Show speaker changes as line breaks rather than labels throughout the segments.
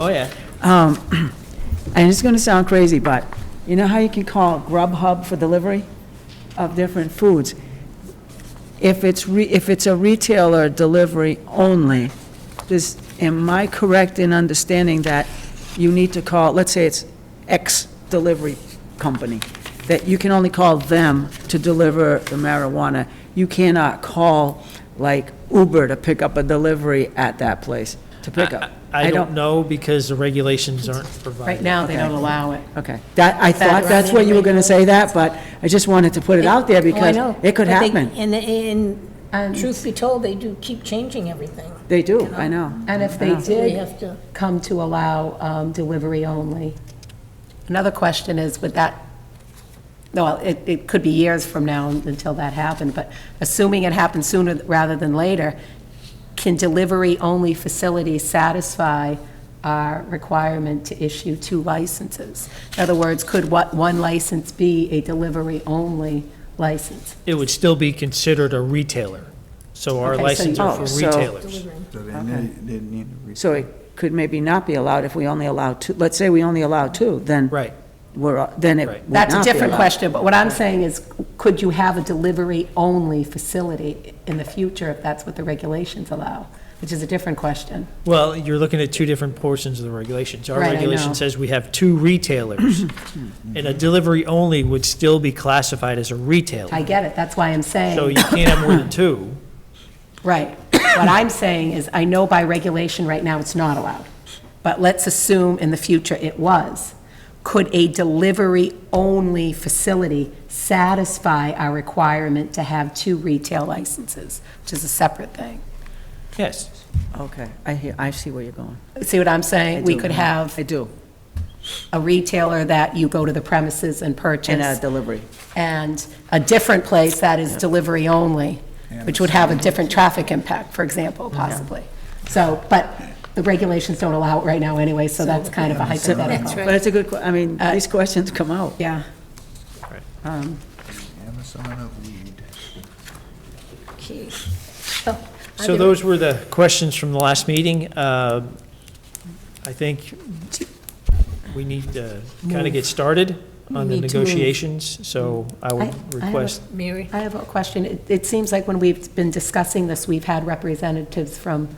Oh, yeah.
Um, And it's going to sound crazy, but you know how you can call Grubhub for delivery of different foods? If it's, re- if it's a retailer delivery only, this, am I correct in understanding that you need to call, let's say it's X delivery company, that you can only call them to deliver the marijuana? You cannot call, like, Uber to pick up a delivery at that place, to pick up?
I I don't know because the regulations aren't provided.
Right now, they don't allow it.
Okay, that, I thought that's what you were gonna say that, but I just wanted to put it out there because
Oh, I know.
it could
But they-
happen.
And, and
And-
truth be told, they do keep changing everything.
They do, I know.
And if they
So we
did
have to,
come to allow um, delivery only, another question is, would that, no, it, it could be years from now until that happened, but assuming it happens sooner rather than later, can delivery-only facilities satisfy our requirement to issue two licenses? In other words, could what, one license be a delivery-only license?
It would still be considered a retailer. So our
Okay, so
licenses are
you-
for
Oh, so-
retailers.
So they need, they need to. re-
So it could maybe not be allowed if we only allow two, let's say we only allow two, then
Right.
we're, then it
Right.
would
That's a
not be
different
allowed.
question, but what I'm saying is, could you have a delivery-only facility in the future if that's what the regulations allow? Which is a different question.
Well, you're looking at two different portions of the regulations. Our
Right, I know.
regulation says we have two retailers, and a delivery only would still be classified as a
I
retailer.
get it, that's why I'm
So
saying,
you can't have more than two.
right. What I'm saying is, I know by regulation right now it's not allowed, but let's assume in the future it was. Could a delivery-only facility satisfy our requirement to have two retail licenses, which is a separate thing?
Yes.
Okay, I hear, I see where you're going.
See what I'm saying?
I
We
do.
could have
I do,
a retailer that you go to the premises and
in a
purchase,
delivery.
and a different place that is delivery only, which would have a different traffic impact, for example, possibly. So, but the regulations don't allow it right now anyway, so that's kind of a hypothetical.
But it's a good, que- I mean,
Uh,
these questions come out.
Yeah.
Amazon of weed.
okay. So Oh, I
So
didn't-
those were the questions from the last meeting. Uh, I think we need to kind of get started on the
Need to move.
negotiations, so I
I- I have
would
a-
request,
Mary,
I have a question. It- It seems like when we've been discussing this, we've had representatives from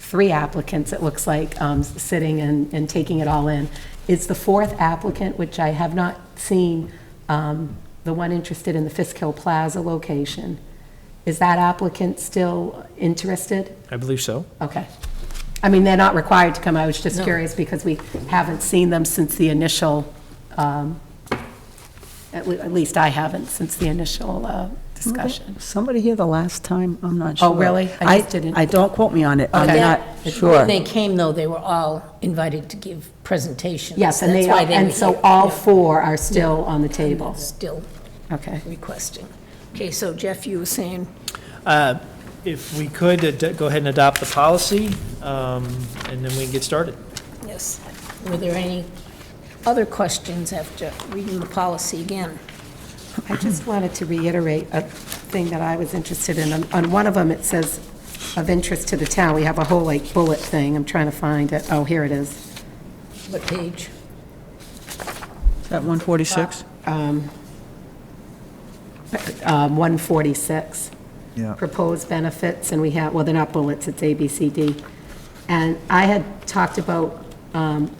three applicants, it looks like, um, sitting and, and taking it all in. Is the fourth applicant, which I have not seen, um, the one interested in the Fisk Hill Plaza location, is that applicant still interested?
I believe so.
Okay. I mean, they're not required to come, I was just
No.
curious because we haven't seen them since the initial, um, at le- at least I haven't, since the initial uh, discussion.
Somebody here the last time, I'm not sure.
Oh, really? I just didn't-
I don't quote me on it, I'm
Okay.
not
when
sure.
they came, though, they were all invited to give presentations.
Yes, and
That's
they,
why they were
and so
here.
all
Yeah.
four are still on the table.
Still
Okay.
requesting. Okay, so Jeff, you were saying,
Uh, If we could, ad- go ahead and adopt the policy, um, and then we can get started.
yes, were there any other questions after reading the policy again?
I just wanted to reiterate a thing that I was interested in. On- On one of them, it says of interest to the town. We have a whole like bullet thing. I'm trying to find it. Oh, here it is.
What page?
Is that 146?
Um, 146.
Yeah.
proposed benefits, and we have, well, they're not bullets, it's A, B, C, D. And I had talked about um,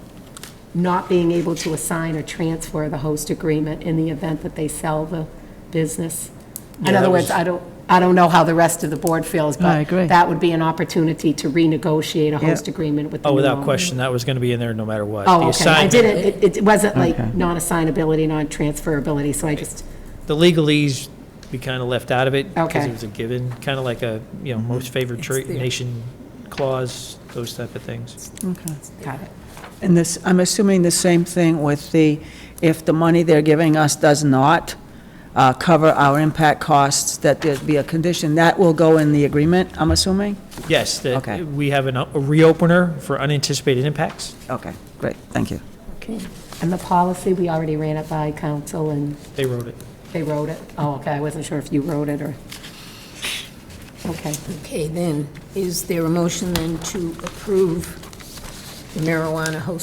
not being able to assign or transfer the host agreement in the event that they sell the business. In
Yeah,
other
that
words,
was-
I don't, I don't know how the rest of the board feels, but
I agree.
that would be an opportunity to renegotiate a host agreement with the
Oh,
new
without
owner.
question, that was going to be in there no matter what. The
Oh, okay. I
assignment-
didn't, it- it wasn't like non-assignability, non-transferability, so I just,
The legalese, we kind of left out of it. Because
Okay.
it was a given, kind of like a, you know, most favored tra- nation clause, those type of things.
Okay.
got it.
And this, I'm assuming the same thing with the, if the money they're giving us does not uh, cover our impact costs, that there'd be a condition, that will go in the agreement, I'm assuming?
Yes,
Okay.
that we have an- a reopener for unanticipated impacts.
Okay, great, thank you.
Okay,
And the policy, we already ran it by council and
They wrote it.
They wrote it? Oh, okay, I wasn't sure if you wrote it or, okay.
okay, then, is there a motion then to approve marijuana host